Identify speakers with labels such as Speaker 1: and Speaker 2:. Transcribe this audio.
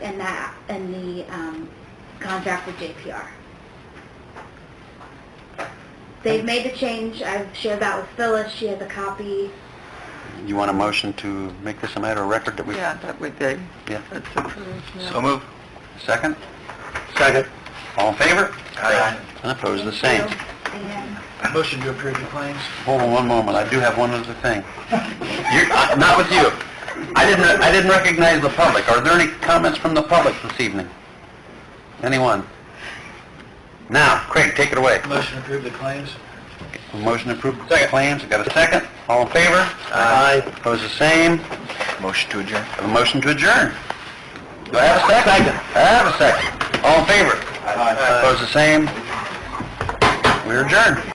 Speaker 1: that, in the um, contract with JPR. They've made the change, I've shared that with Phyllis, she has a copy.
Speaker 2: You want a motion to make this a matter of record that we...
Speaker 3: Yeah, that would be,
Speaker 2: Yeah.
Speaker 3: that's approved, yeah.
Speaker 2: So move. Second? Second. All in favor?
Speaker 4: Aye.
Speaker 2: And opposed, the same.
Speaker 1: And
Speaker 4: Motion to approve the claims.
Speaker 2: Hold on one moment, I do have one other thing. You're, uh, not with you. I didn't, I didn't recognize the public. Are there any comments from the public this evening? Anyone? Now, Craig, take it away.
Speaker 4: Motion to approve the claims.
Speaker 2: Motion to approve the claims, got a second? All in favor? Aye. Opposed, the same.
Speaker 4: Motion to adjourn.
Speaker 2: Have a motion to adjourn. Do I have a second? I have a second. All in favor?
Speaker 4: Aye.
Speaker 2: Opposed, the same. We're adjourned.